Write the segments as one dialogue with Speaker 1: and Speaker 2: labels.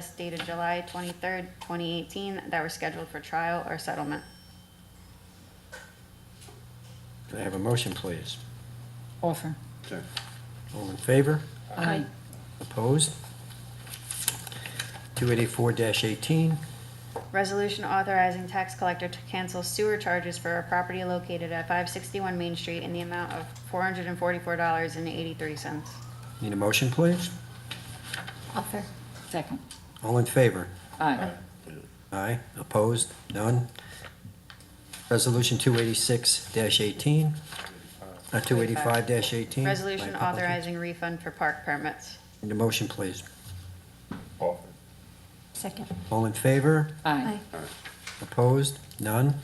Speaker 1: as dated July twenty-third, twenty eighteen, that were scheduled for trial or settlement.
Speaker 2: Can I have a motion, please?
Speaker 3: Offer.
Speaker 4: Sure.
Speaker 2: All in favor?
Speaker 3: Aye.
Speaker 2: Opposed? 284-18,
Speaker 1: Resolution authorizing tax collector to cancel sewer charges for a property located at five sixty-one Main Street in the amount of four hundred and forty-four dollars and eighty-three cents.
Speaker 2: need a motion, please?
Speaker 3: Offer. Second.
Speaker 2: All in favor?
Speaker 3: Aye.
Speaker 2: Aye. Opposed? None. Resolution 286-18, uh,
Speaker 1: Resolution
Speaker 2: 285-18. My apologies.
Speaker 1: authorizing refund for park permits.
Speaker 2: Need a motion, please?
Speaker 4: Offer.
Speaker 3: Second.
Speaker 2: All in favor?
Speaker 3: Aye.
Speaker 2: Opposed? None.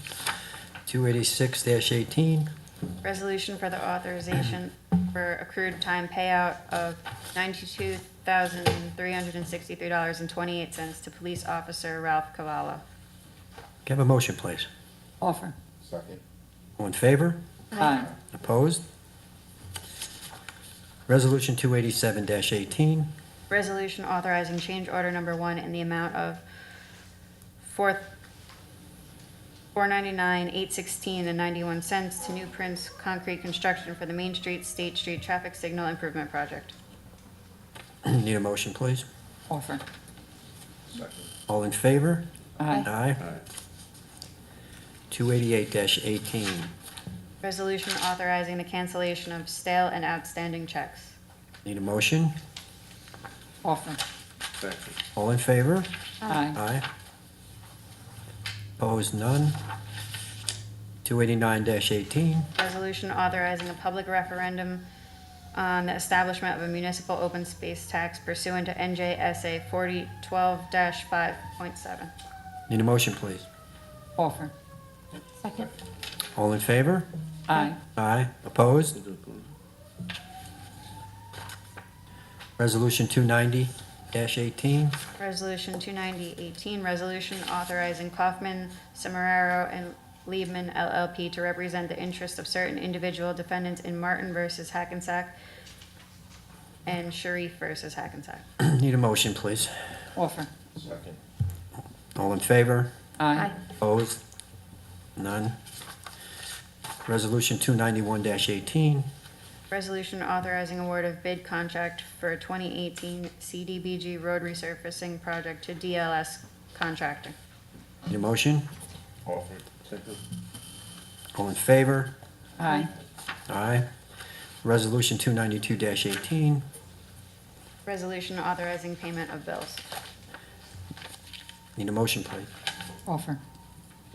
Speaker 2: 286-18,
Speaker 1: Resolution for the authorization for accrued time payout of ninety-two thousand, three hundred and sixty-three dollars and twenty-eight cents to police officer Ralph Cavallo.
Speaker 2: can I have a motion, please?
Speaker 3: Offer.
Speaker 4: Second.
Speaker 2: All in favor?
Speaker 3: Aye.
Speaker 2: Opposed? Resolution 287-18,
Speaker 1: Resolution authorizing change order number one in the amount of four, four ninety-nine, eight sixteen and ninety-one cents to New Prince Concrete Construction for the Main Street, State Street Traffic Signal Improvement Project.
Speaker 2: need a motion, please?
Speaker 3: Offer.
Speaker 4: Second.
Speaker 2: All in favor?
Speaker 3: Aye.
Speaker 2: Aye.
Speaker 4: Aye.
Speaker 2: 288-18,
Speaker 1: Resolution authorizing the cancellation of stale and outstanding checks.
Speaker 2: need a motion?
Speaker 3: Offer.
Speaker 4: Second.
Speaker 2: All in favor?
Speaker 3: Aye.
Speaker 2: Aye. Opposed, none. 289-18,
Speaker 1: Resolution authorizing a public referendum on the establishment of a municipal open space tax pursuant to NJSA forty twelve five point seven.
Speaker 2: need a motion, please?
Speaker 3: Offer.
Speaker 5: Second.
Speaker 2: All in favor?
Speaker 3: Aye.
Speaker 2: Aye. Opposed? Resolution 290-18,
Speaker 1: Resolution 290-18, resolution authorizing Kaufman, Semeraro, and Liebman LLP to represent the interests of certain individual defendants in Martin versus Hackensack and Sharif versus Hackensack.
Speaker 2: need a motion, please?
Speaker 3: Offer.
Speaker 4: Second.
Speaker 2: All in favor?
Speaker 3: Aye.
Speaker 2: Opposed? None. Resolution 291-18,
Speaker 1: Resolution authorizing award of bid contract for 2018 CDBG road resurfacing project to DLS contractor.
Speaker 2: need a motion?
Speaker 4: Offer. Second.
Speaker 2: All in favor?
Speaker 3: Aye.
Speaker 2: Aye. Resolution 292-18,
Speaker 1: Resolution authorizing payment of bills.
Speaker 2: need a motion, please?
Speaker 3: Offer.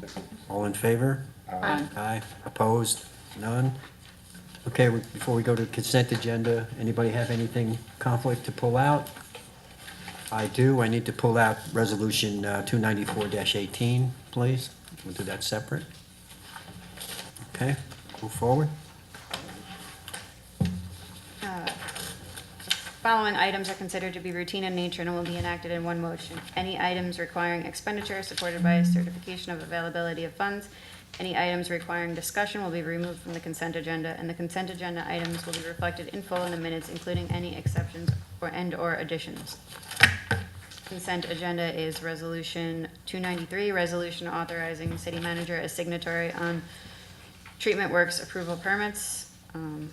Speaker 4: Second.
Speaker 2: All in favor?
Speaker 3: Aye.
Speaker 2: Aye. Opposed? None. Okay, we- before we go to consent agenda, anybody have anything conflict to pull out? I do. I need to pull out Resolution uh, 294-18, please. We'll do that separate. Okay, move forward.
Speaker 1: Following items are considered to be routine in nature and will be enacted in one motion. Any items requiring expenditure supported by a certification of availability of funds. Any items requiring discussion will be removed from the consent agenda, and the consent agenda items will be reflected in full in the minutes, including any exceptions or and/or additions. Consent agenda is Resolution 293, resolution authorizing city manager as signatory on treatment works approval permits. Um,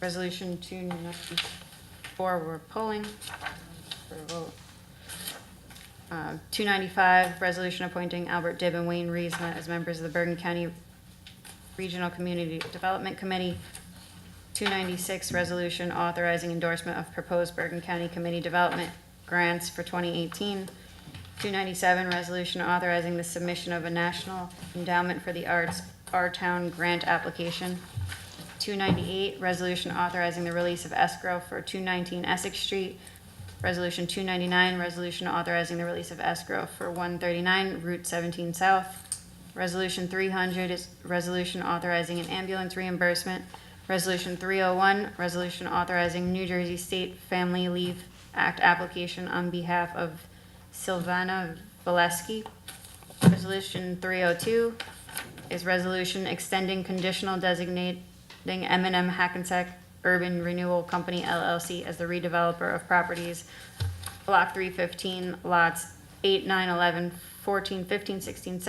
Speaker 1: Resolution 294, we're pulling for a vote. Uh, 295, resolution appointing Albert Dibb and Wayne Reesma as members of the Bergen County Regional Community Development Committee. 296, resolution authorizing endorsement of proposed Bergen County Committee Development grants for 2018. 297, resolution authorizing the submission of a National Endowment for the Arts, Our Town Grant application. 298, resolution authorizing the release of escrow for 219 Essex Street. Resolution 299, resolution authorizing the release of escrow for 139 Route 17 South. Resolution 300 is resolution authorizing an ambulance reimbursement. Resolution 301, resolution authorizing New Jersey State Family Leave Act application on behalf of Sylvana Valesky. Resolution 302 is resolution extending conditional designating m and M Hackensack Urban Renewal Company LLC as the redeveloper of properties Block 315, lots 8, 9, 11, 14, 15, 16,